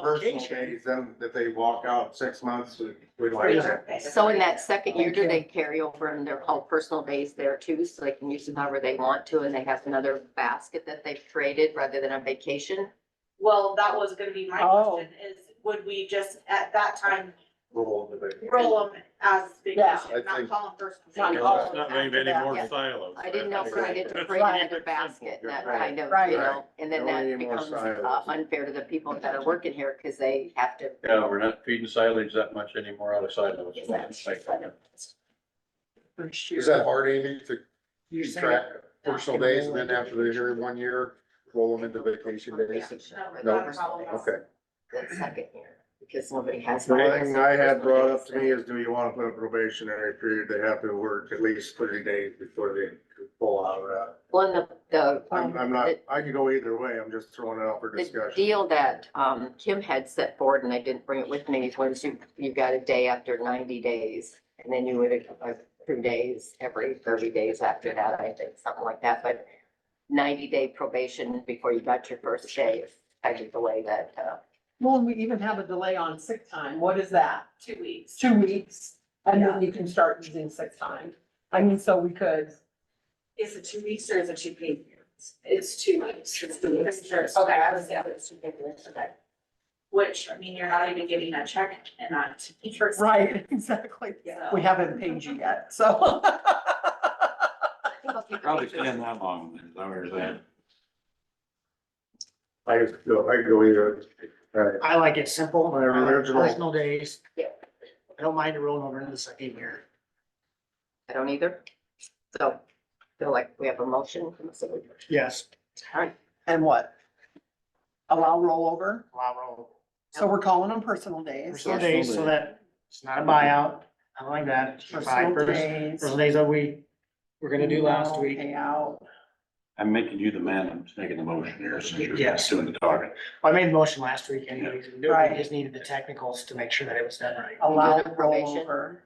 personal obligation. days, then if they walk out six months, we- we don't Free. have that. So in that second year, do Thank you. they carry over in their whole personal days there too? So they can use them however they want to and they have another basket that they've traded rather than a vacation? Well, that was gonna be my Oh. question, is would we just at that time rule that they- roll them as Yeah. I vacation, think- not call them first? Not vacation, call Let's them after not leave any that. more Yes. silos. I didn't know if we needed to create Right. another basket, that Right. kind of, Right. you know, and then Don't that need more becomes uh, silos. unfair to the people that are working here because they have to. Yeah, we're not feeding silage that much anymore out of silos. For sure. Is that hard, Amy, to You're keep saying- track of personal days and then after they're here in one year, roll them into vacation days? No, No, not a problem. Okay, That second year, because nobody has. The only thing I had brought up to me is, do you wanna put a probationary period, they have to work at least thirty days before they pull out of that. One, the, the I'm, I'm not, I could go either way, I'm just throwing it out for Um, The discussion. deal that um Kim had set forward, and I didn't bring it with me, was you, you got a day after ninety days. And then you would, uh, two days, every thirty days after that, I think, something like that, but ninety day probation before you got your first day is kind of the way that, uh, Well, and we even have a delay on sick time. What is that? Two weeks. Two weeks? And then you can start using sick time. I mean, so we could. Is it two weeks or is it two paid periods? It's two weeks. It's the weeks. Okay, I was- yeah, it's two paid periods, okay. Which, I mean, you're not even getting a check and not. first- Right, exactly. Yeah. We haven't paid you yet, so. Probably staying that long, is that what you're saying? I could go, I could go either. uh, Right. I like it simple. My original- Personal days. Yeah. I don't mind it rolling over into the second year. I don't either. So feel like we have a motion. from the city. Yes. And what? Allow rollover? Allow roll. So we're calling them personal days. Personal days so that it's not a buyout. I don't like that. Buy Personal first- days. Personal days that we, we're gonna do last no week. Payout. I'm making you the man, I'm making the motion here, since you're Yes. doing the talking. Well, I made a motion last week anyways. We Right. Oh, just needed the technicals to make sure that it was done right. Allow the probation. rollover.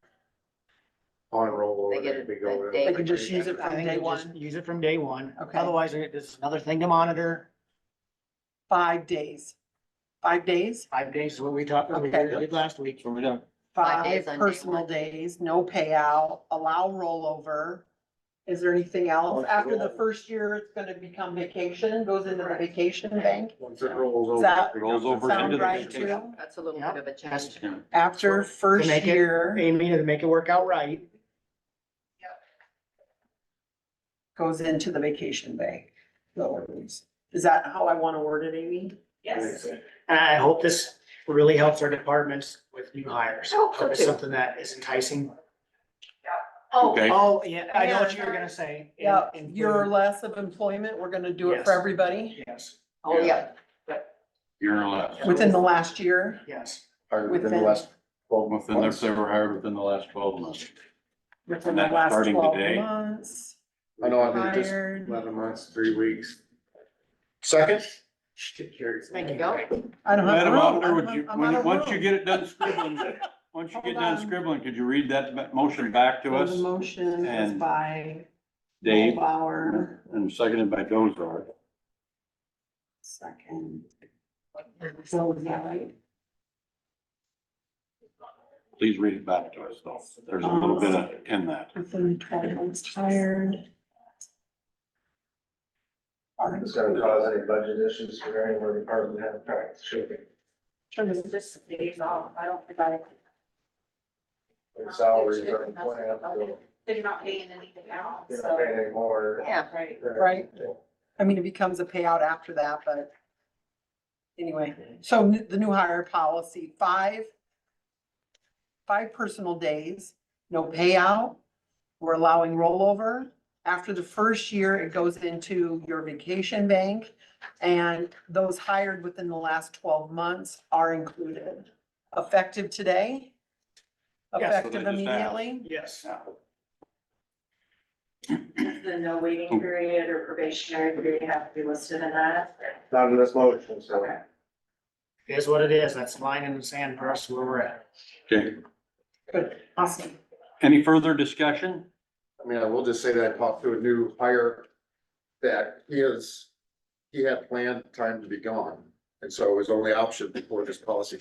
On roll. They get it'd be a- going. a day. They can just use it I from think day we just one. Use it from day one. Okay. Otherwise, there- this is another thing to monitor. Five days. Five days? Five days is what we talked, what we Okay. did last week. What we done? Five days on Five day personal one. days, no payout, allow rollover. Is there anything Oh, else? After the first year, it's gonna become vacation, goes into the vacation bank. Once it rolls over. That it becomes rolls over something. into Sound the right vacation. too? That's a little Yep. bit of a change. After first make it- year Amy, to make it work out right. goes into the vacation bank. No worries. Is that how I wanna word it, Amy? Yes. And I hope this really helps our departments with new hires. I hope so it's too. something that is enticing. Oh, Okay. Oh, yeah, I know what Yeah. you were gonna say. And- Yeah, and year or for- less of employment, we're gonna do it for Yes. everybody Yes, Oh, yeah. You're left. within the last year. yes. or within the Within- last twelve months. Within, if they were hired within the last twelve months. Within And the that's last starting twelve today. months. I know, I mean, just Hired. Eleven months, three weeks. second, There you go. I don't have. Madam room. Auditor, I'm would on- you, I'm when, out you- of once you room. get it done scribbling, once you Hold get done on. scribbling, could you read that mo- motion back to So The us? motion is and- by Dave, Bauer, and seconded by Dozar. second. So is that right? Please read it back to us, though. There's a little bit of, in that. Within twelve months hired. It's gonna cause any budget issues for any of our department head, right, should be. It's just days off. I don't think I. Their salaries are going up, so They're not paying anything out, they're not so, paying any more. Yeah. right. Right. I mean, it becomes a payout after that, but anyway, so n- the new hire policy, five, five personal days, no payout. We're allowing rollover. After the first year, it goes into your vacation bank. And those hired within the last twelve months are included. Effective today? Yes. Effective So they just add. immediately? Yes. The no waiting period or probationary period have to be listed in that. Not in this motion, so. Okay. It Is what it is. That's line in the sand for us where we're at. Okay, Good, awesome. any further discussion? I mean, I will just say that I talked to a new hire that he is, he had planned time to be gone. And so his only option before this policy